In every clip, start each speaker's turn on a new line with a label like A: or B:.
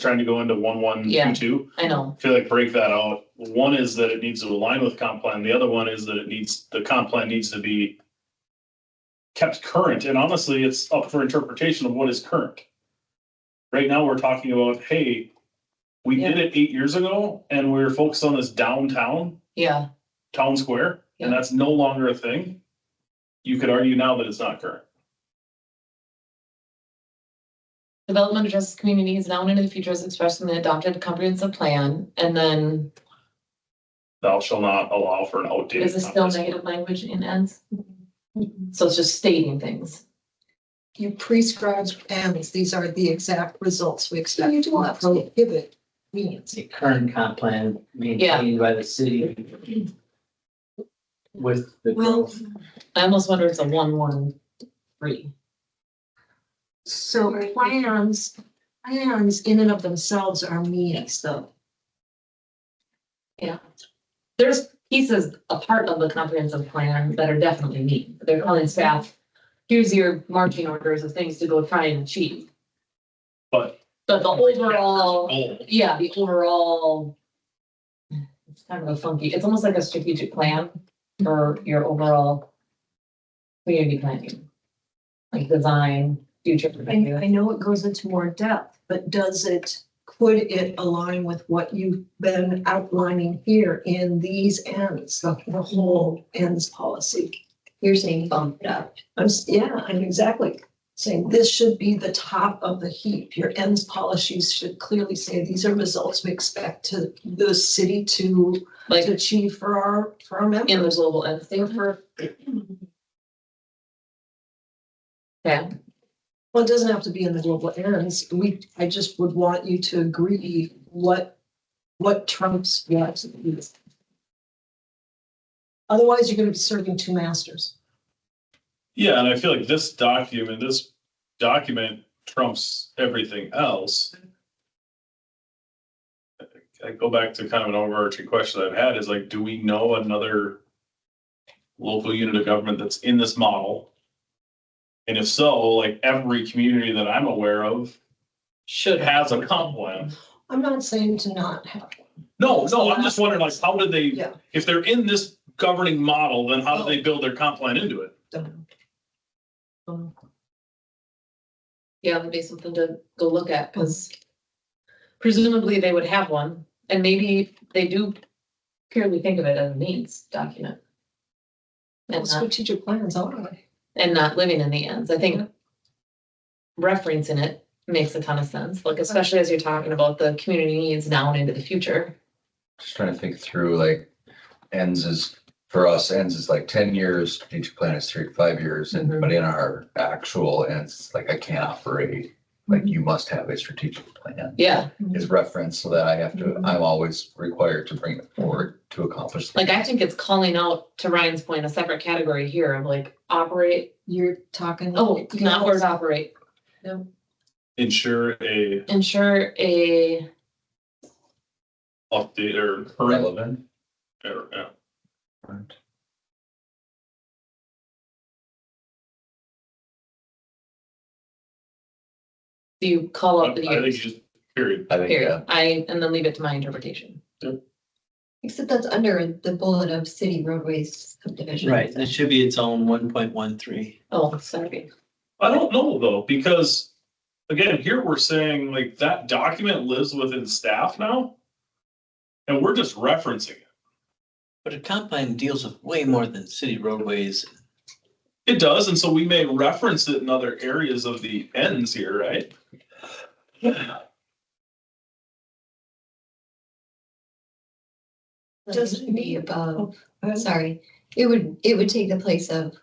A: trying to go into one, one, two,
B: Yeah.
A: two.
B: I know,
A: I feel like break that out. One is that it needs to align with comp plan. The other one is that it needs, the comp plan needs to be kept current. And honestly, it's up for interpretation of what is current. Right now, we're talking about, hey, we did it eight years ago and we were focused on this downtown
B: yeah,
A: town square, and
B: Yeah.
A: that's no longer a thing. You could argue now that it's not current.
B: development addresses communities now and into the future as expressed in the adopted comprehensive plan, and then
A: Thou shall not allow for an outdated.
B: is this still
A: comprehensive-
B: negative language in ends? So it's just stating things,
C: You prescribe ends, these are the exact results we expect.
B: You do
C: from
B: have to.
C: Prohibit means.
D: the current comp plan maintained by the city with the
C: Well,
D: growth.
B: I almost wonder if it's a one, one, three,
C: so plans, plans in and of themselves are means though.
B: there's pieces, a part of the comprehensive plan that are definitely neat, they're calling staff. Here's your marching orders of things to go try and achieve,
A: But
B: but the overall,
A: goal
B: yeah, the overall. It's kind of a funky, it's almost like a strategic plan for your overall. Community planning. Like design, future.
C: I, I know it goes into more depth, but does it, could it align with what you've been outlining here in these ends, the the whole ends policy?
E: You're saying bump it up.
C: I'm, s- yeah, I'm exactly saying this should be the top of the heap. Your ends policies should clearly say these are results we expect to the city to
B: Like
C: to achieve for our, for our
B: in the
C: members.
B: global end thing for. Yeah,
C: Well, it doesn't have to be in the global ends. We, I just would want you to agree what, what trumps what. Otherwise, you're gonna be serving two masters.
A: Yeah, and I feel like this document, this document trumps everything else. I go back to kind of an overarching question I've had is like, do we know another local unit of government that's in this model? And if so, like every community that I'm aware of
B: should.
A: has a comp plan.
C: I'm not saying to not have one.
A: No, no, I'm just wondering like, how did they,
C: Yeah.
A: if they're in this governing model, then how do they build their comp plan into it?
C: Don't know. Don't know.
B: Yeah, that'd be something to go look at, because presumably they would have one, and maybe they do purely think of it as a needs document. And
C: Well,
B: not-
C: Strategic plans are.
B: and not living in the ends. I think referencing it makes a ton of sense, like especially as you're talking about the community needs now and into the future.
F: Just trying to think through like ends is for us ends is like ten years, strategic plan is three to five years,
B: Mhm.
F: and but in our actual ends, it's like I can't operate. Like you must have a strategic plan
B: Yeah,
F: is referenced so that I have to, I'm always required to bring it forward to accomplish.
B: like I think it's calling out to Ryan's point, a separate category here of like operate,
C: You're talking.
B: oh, not word operate,
A: Ensure a
B: ensure a,
A: update or current
F: Relevant.
A: Or, yeah.
B: do you call
A: I I
B: out the
A: think you
B: years?
A: just, period.
F: I think, yeah.
B: Period, I, and then leave it to my interpretation.
E: Except that's under the bullet of city roadways subdivision.
D: Right, that should be its own one point one three.
B: Oh, sorry,
A: I don't know though, because again, here we're saying like that document lives within staff now. And we're just referencing it.
D: But a comp plan deals with way more than city roadways.
A: It does, and so we may reference it in other areas of the ends here, right?
E: Like,
C: Does it
E: should be
C: need-
E: above,
C: oh.
E: sorry, it would, it would take the place of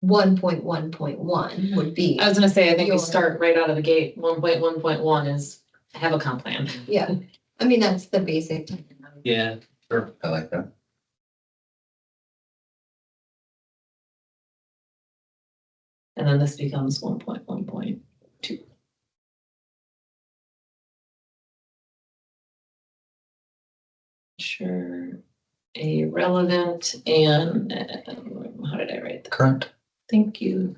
E: one point one point one would be,
B: I was gonna say, I think we
E: Your-
B: start right out of the gate, one point one point one is have a comp plan.
E: yeah. I mean, that's the basic.
D: Yeah,
F: I like that.
B: And then this becomes one point one point two. Sure, a relevant and, um, how did I write? that?
F: Current.
B: Thank you.